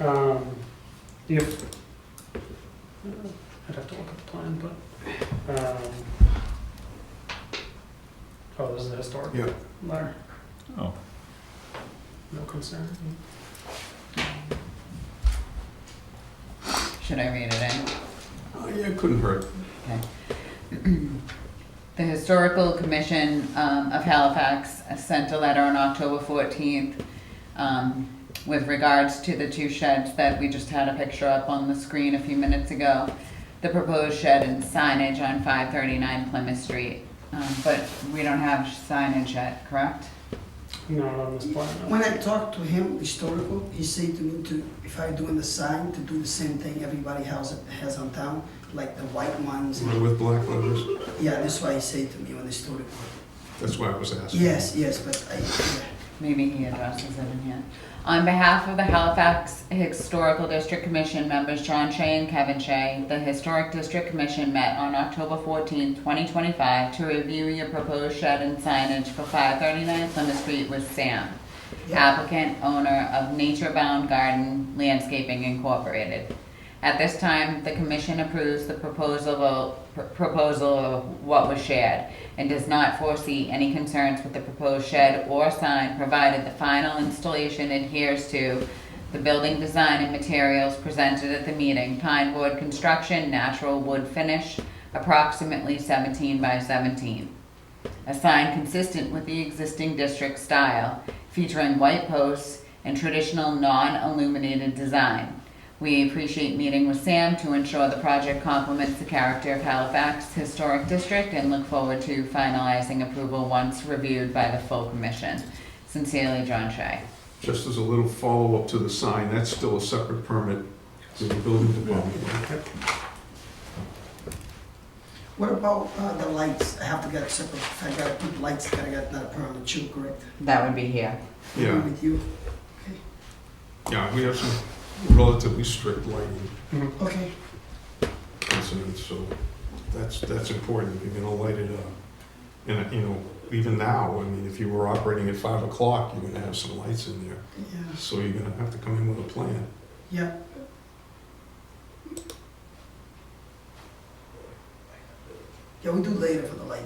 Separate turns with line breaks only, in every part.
Um, If, I'd have to look at the plan, but, um, oh, this is the historic
Yeah.
letter,
Oh,
no concern.
Should I read it in?
Oh, yeah, it couldn't hurt.
Okay. The Historical Commission um, of Halifax sent a letter on October 14th um, with regards to the two sheds that we just had a picture up on the screen a few minutes ago. The proposed shed and signage on 539 Plymouth Street. Um, But we don't have signage yet, correct?
Not on this plan, no.
When I talked to him, historical, he said to me to, if I doing the sign, to do the same thing everybody else has on town, like the white ones.
One with black letters.
Yeah, that's why he said to me on historical.
That's why I was asking.
Yes, yes, but I, yeah.
Maybe he addresses it in here. On behalf of the Halifax Historical District Commission members John Shea and Kevin Shea, the Historic District Commission met on October 14, 2025 to review your proposed shed and signage for 539 Plymouth Street with Sam,
Yeah.
applicant, owner of Nature Bound Garden Landscaping Incorporated. At this time, the commission approves the proposal of, pr- proposal of what was shared and does not foresee any concerns with the proposed shed or sign, provided the final installation adheres to the building design and materials presented at the meeting, pine wood construction, natural wood finish, approximately seventeen by seventeen. A sign consistent with the existing district style, featuring white posts and traditional non-illuminated design. We appreciate meeting with Sam to ensure the project complements the character of Halifax Historic District and look forward to finalizing approval once reviewed by the full commission. Sincerely, John Shea.
Just as a little follow-up to the sign, that's still a separate permit to the building department.
What about uh, the lights? I have to get separate, if I gotta put lights, I gotta get another permit too, correct?
That would be here.
Yeah.
Agree With you,
Yeah, we have some relatively strict lighting
Mhm.
okay,
incidents, so that's, that's important, if you're gonna light it up. And, you know, even now, I mean, if you were operating at five o'clock, you're gonna have some lights in there,
yeah,
so you're gonna have to come in with a plan.
yeah. Yeah, we do later for the light.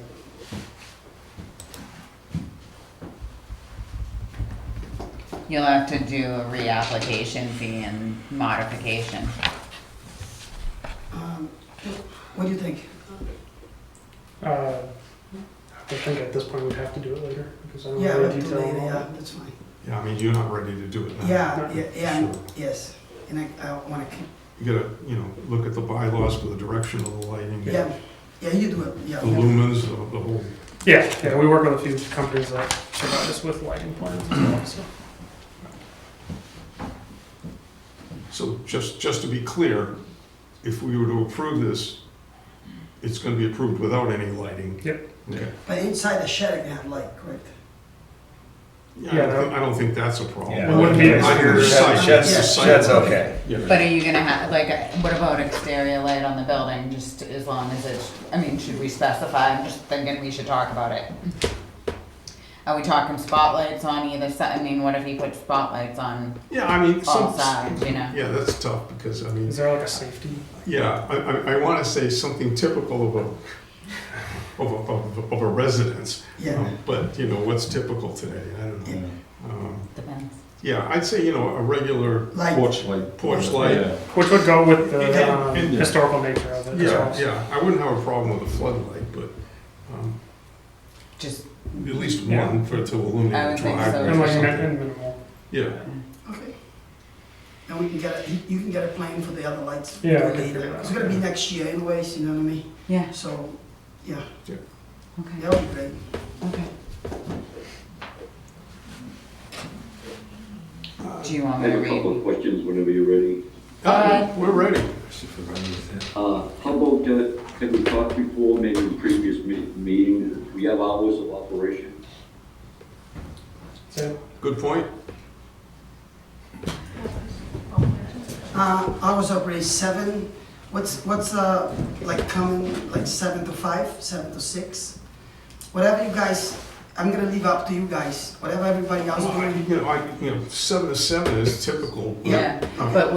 You'll have to do a reapplication fee and modification.
Um, What do you think?
Uh, I think at this point we'd have to do it later, because I don't
Yeah,
have
we'll
the
do
detail
later,
on all
yeah,
that.
that's fine.
Yeah, I mean, you're not ready to do it now.
Yeah, yeah, yeah,
Sure.
yes, and I, I wanna, keep-
You gotta, you know, look at the bylaws for the direction of the lighting.
yeah, yeah, you do it, yeah.
The lumens, the the whole
Yeah, yeah, we work with a few companies that provide us with lighting plans as well, so.
So just, just to be clear, if we were to approve this, it's gonna be approved without any lighting?
Yep.
Okay.
But inside the shed, I can have light, correct?
Yeah, I don't think- I don't think that's a problem.
Yeah.
It wouldn't be
I can
exterior.
recite-
Sheds-
recite-
sheds okay.
But are you gonna have, like, uh, what about exterior light on the building, just as long as it's, I mean, should we specify, I'm just thinking we should talk about it. Are we talking spotlights on either side, I mean, what if he put spotlights on
Yeah, I mean,
all
some,
sides, you know?
yeah, that's tough, because, I mean,
Is there like a safety?
yeah, I, I, I wanna say something typical of a, of a, of a- of a residence,
Yeah,
um, but, you know, what's typical today, I don't know. Um,
Depends.
Yeah, I'd say, you know, a regular
light,
Porch light.
porch light,
Yeah.
Which would go with the
Yeah,
um,
and-
historical nature of it as
yeah,
well.
yeah, I wouldn't have a problem with a floodlight, but, um,
Just,
At least
Yeah.
one for to
I
illuminate
would
the
think
driveway
so.
And
or
like min-
something.
and minimal.
Yeah,
okay. And we can get, a you can get a plan for the other lights
Yeah, I can
later.
figure it
It's
out.
gonna be next year anyways, you know what I mean?
yeah,
So, yeah,
okay,
that'll be great.
okay.
Uh,
Do you want
I
me to
have a couple
read?
of questions whenever you're ready.
uh, we're ready.
Uh, How about, uh, have we talked before, maybe in previous me- meetings, we have hours of operation?
So,
Good point.
Uh, hours of operate seven, what's, what's, uh, like coming, like seven to five, seven to six? Whatever you guys I'm gonna leave up to you guys, whatever everybody else
Well, I-
doing.
You know, I, you know, seven to seven is typical.
Yeah,
I mean,
but